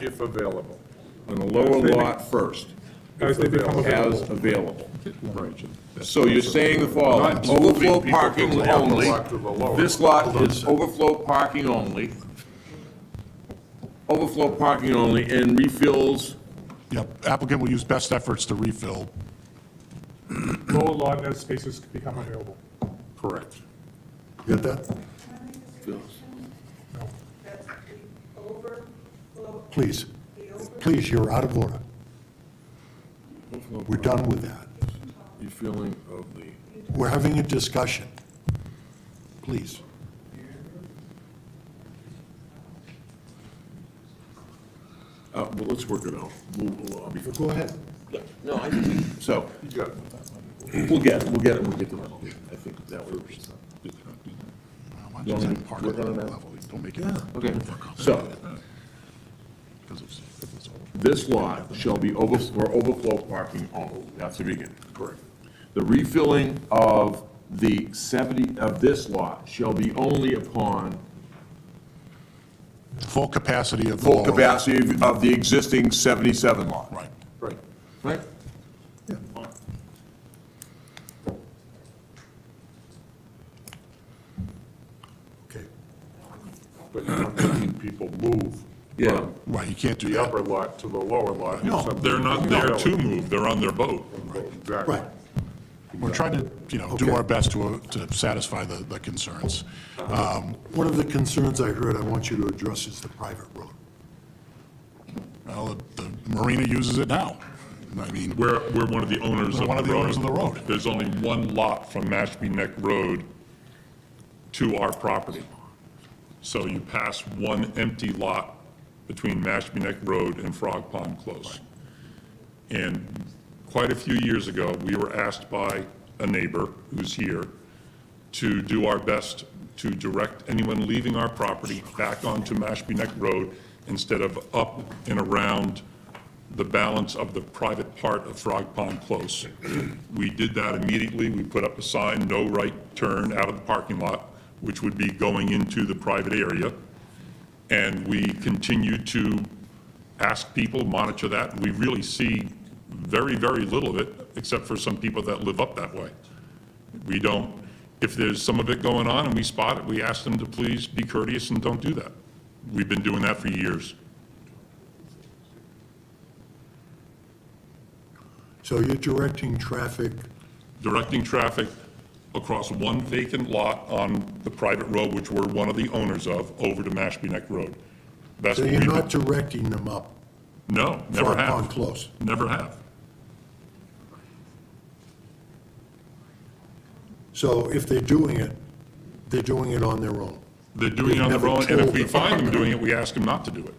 if available. on the lower lot first, As they become as available. available. So you're saying the following, overflow parking only, this lot is overflow parking only, overflow parking only, and refills, Yep, applicant will use best efforts to refill. Lower lot as spaces become available. correct. Get that? No. Please, please, you're out of order. We're done with that. Refilling of the, We're having a discussion. Please. uh, well, let's work it out. We'll- we'll- I'll be- Go ahead. No, I think, so, we'll get, it, we'll get it, we'll get to that. I think that works. Don't make it. Okay, so, this lot shall be over, for overflow parking only, that's the beginning. Correct. The refilling of the seventy, of this lot shall be only upon Full capacity of the full wall. capacity of- of the existing seventy-seven lot. Right. Right. Right? Okay. But you're not making people move Yeah. Right, you can't do the that. upper lot to the lower lot. if No, something- They're not there to move, they're on their boat. Exactly. Right. We're trying to, you know, do our best to, to satisfy the, the concerns. Um, One of the concerns I heard I want you to address is the private road. Well, the marina uses it now. I mean, We're, we're one of the owners of the road. We're one of the owners of the road. There's only one lot from Mashpee Neck Road to our property. So you pass one empty lot between Mashpee Neck Road and Frog Pond Close. And quite a few years ago, we were asked by a neighbor who's here to do our best to direct anyone leaving our property back onto Mashpee Neck Road instead of up and around the balance of the private part of Frog Pond Close. We did that immediately. We put up a sign, no right turn out of the parking lot, which would be going into the private area. And we continue to ask people, monitor that. We really see very, very little of it, except for some people that live up that way. We don't, if there's some of it going on and we spot it, we ask them to please be courteous and don't do that. We've been doing that for years. So you're directing traffic, directing traffic across one vacant lot on the private road, which we're one of the owners of, over to Mashpee Neck Road. That's so what you're we- not directing them up No, never Frog Pond have. Close. Never have. So if they're doing it, they're doing it on their own. They're doing it on their Never own, and if told we the find them doing it, we ask them not to do it.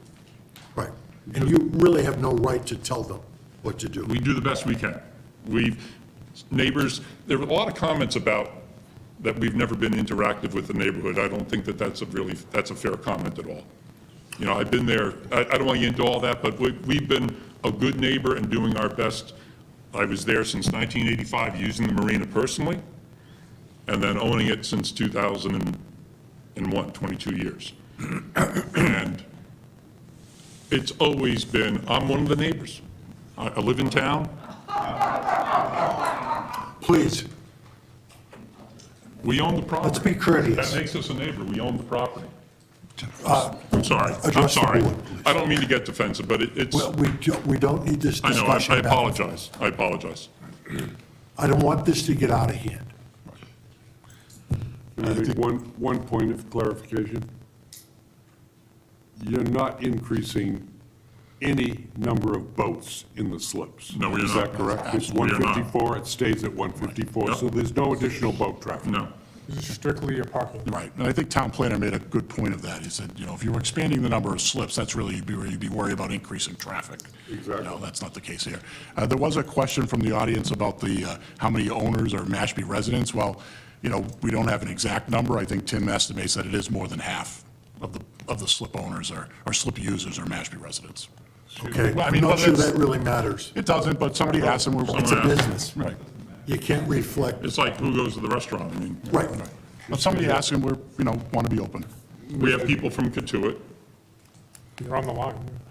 Right. And you really have no right to tell them what to do. We do the best we can. We've, neighbors, there were a lot of comments about that we've never been interactive with the neighborhood. I don't think that that's a really, that's a fair comment at all. You know, I've been there, I, I don't want to get into all that, but we, we've been a good neighbor and doing our best. I was there since 1985, using the marina personally, and then owning it since 2001, 22 years. And it's always been, I'm one of the neighbors. I, I live in town. Please, We own the property. let's be That courteous. makes us a neighbor. We own the property. Uh, I'm sorry. I'm address the sorry. board, please. I don't mean to get defensive, but it- it's, Well, we, do- we don't need this I know, I discussion. I back and apologize. I apologize. I don't want this to get out of hand. And I think one, one point of clarification. You're not increasing any number of boats in the slips. No, we are Is that not. correct? It's We are not. 154, it stays at 154, Yep. so there's no additional boat traffic. No. This is strictly a parking. Right, and I think town planner made a good point of that. He said, you know, if you were expanding the number of slips, that's really, you'd be, you'd be worried about increasing traffic. Exactly. No, that's not the case here. Uh, there was a question from the audience about the, uh, how many owners are Mashpee residents? Well, you know, we don't have an exact number. I think Tim estimates that it is more than half of the, of the slip owners or, or slip users are Mashpee residents. Okay? Well, I I'm mean, not whether sure it's- that really matters. It doesn't, but somebody asked and It's we're, a business. right. You can't reflect, It's like who goes to the restaurant. I mean, right. But somebody asked and we're, you know, want to be open. we have people from Katuitt. You're on the line.